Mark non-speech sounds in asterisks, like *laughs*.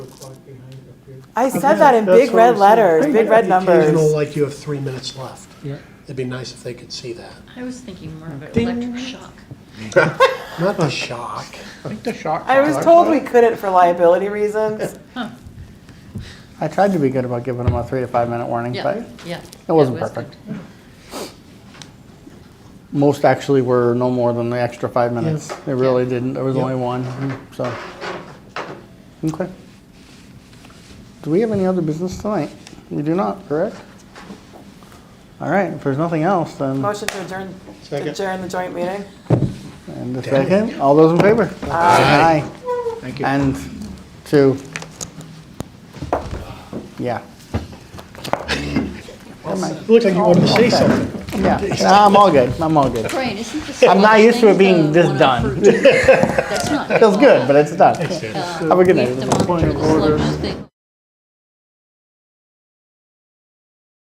I said that in That's big what I'm red saying. letters, big red The Occasional, numbers. like you have three minutes left. Yeah. It'd be nice if they could see that. I was thinking more of an Ding. electric shock. Not the shock. I think the shock. I was collar- told we couldn't for *laughs* liability reasons. I tried to be good about giving them a three to five minute warning, but Yeah, yeah. it wasn't was perfect. good. most actually were no more than the extra five minutes. Yes. They really didn't. There was Yeah. only one. So okay. Do we have any other business tonight? We do not, correct? All right. If there's nothing else, then Motion to adjourn, Second. adjourn the joint meeting. And a second, all those in favor? Aye. Thank you. And two. Yeah, Looked like you wanted to say something. yeah. Nah, I'm all good, I'm all good. Brian, isn't this? I'm not used to it being this one of done. fruit? That's not. Feels good, but it's done. Have a good night. We have to monitor the sludge thing.